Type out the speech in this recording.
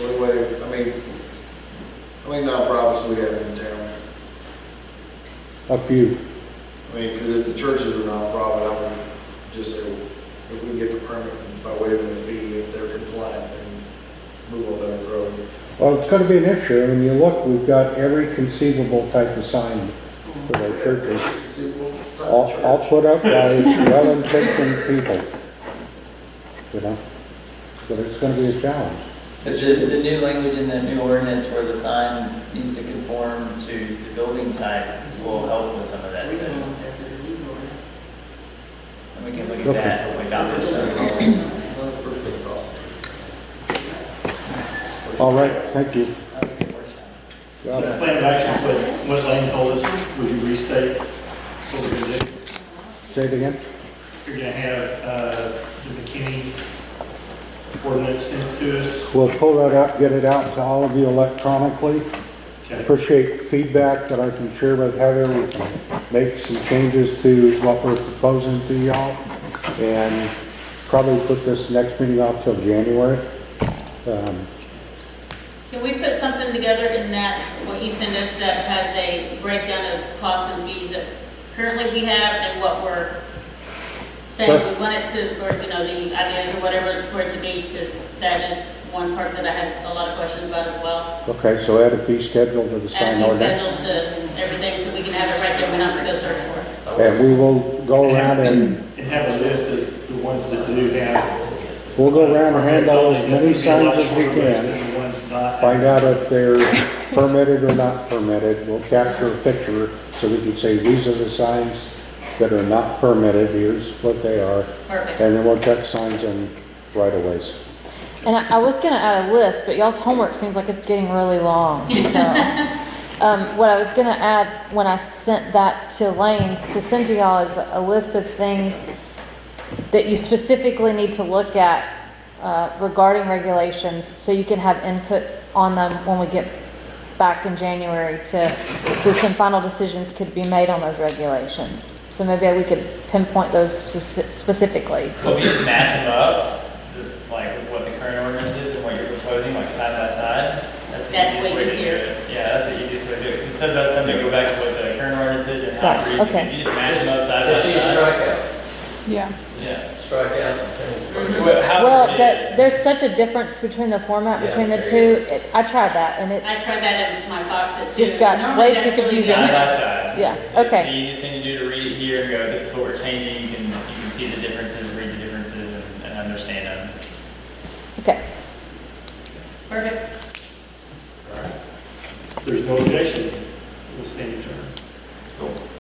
way, I mean, how many nonprofits do we have in town? a few. I mean, because if the churches are nonprofit, I would just say, if we get the permit by way of the fee, if they're compliant, then move on down the road. Well, it's gonna be an issue, I mean, you look, we've got every conceivable type of sign for our churches. See, well, it's not All, a all church. put up by well-intentioned people, you know? But it's gonna be a challenge. Because the, the new language in the new ordinance where the sign needs to conform to the building type will help with some of that too. And we can look at that when we adopt this. Not the first thing possible. All right, thank you. That was a good workshop. So the plan of action, what, what Lane told us, would you restate what we're gonna do? Say it again? You're gonna have, uh, the McKinney ordinance sent to us. We'll pull that up, get it out to all of you electronically. Okay. Appreciate feedback that I can share with Heather. We can make some changes to what we're proposing to y'all. And probably put this next meeting off till January. Um, Can we put something together in that, what you send us that has a breakdown of costs and fees that currently we have and what we're saying Sure. we want it to, or, you know, the ideas or whatever for it to be, because that is one part that I had a lot of questions about as well. Okay, so add a fee schedule to the sign And we schedule ordinance. to everything, so we can have it right there, we don't have to go search for it. And we will go around and, And have a list of the ones that do have. we'll go around and hand out as many It's gonna signs be a lot as we shorter list can. than the ones not. find out if they're permitted or not permitted. We'll capture a picture so we can say, these are the signs that are not permitted, here's what they are. Perfect. And then we'll check signs in right of ways. And I, I was gonna add a list, but y'all's homework seems like it's getting really long, so. Um, what I was gonna add, when I sent that to Lane, to send to y'all is a list of things that you specifically need to look at, uh, regarding regulations, so you can have input on them when we get back in January to, so some final decisions could be made on those regulations. So maybe we could pinpoint those speci- specifically. Will we just match them up, the- like what the current ordinance is and what you're proposing, like side by side? That's the That's easiest way way to do easier. it. Yeah, that's the easiest way to do it, because instead of us having to go back to what the current ordinance is and how Right, it reads, okay. if you just match them up side by Just see a side. strikeout, Yeah. Yeah. strikeout. Well, Mm-hmm. Well, however it is. that, there's such a difference between the format, Yeah, between the there two. It- I tried that and it, I tried that in my Fox at two. Just got Normally way that's too really confusing. good. Side by side. Yeah, It's the okay. easiest thing to do to read it here and go, this is what we're changing, you can, you can see the differences, read the differences and, and understand them. okay. Perfect. There's no objection.